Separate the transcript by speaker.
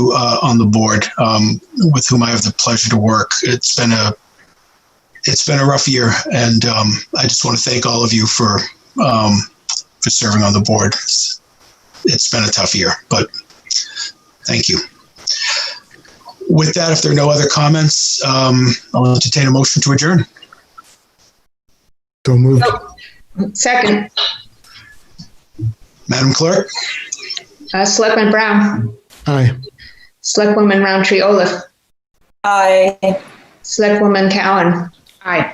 Speaker 1: uh, on the board, um, with whom I have the pleasure to work. It's been a it's been a rough year, and um, I just want to thank all of you for um, for serving on the board. It's- it's been a tough year, but thank you. With that, if there are no other comments, um, I'll entertain a motion to adjourn.
Speaker 2: So moved.
Speaker 3: Second,
Speaker 1: Madam Clerk,
Speaker 3: uh, Selectman Brown,
Speaker 2: Aye.
Speaker 3: Selectwoman Roundtree Olaf,
Speaker 4: Aye.
Speaker 3: Selectwoman Cowan. Aye.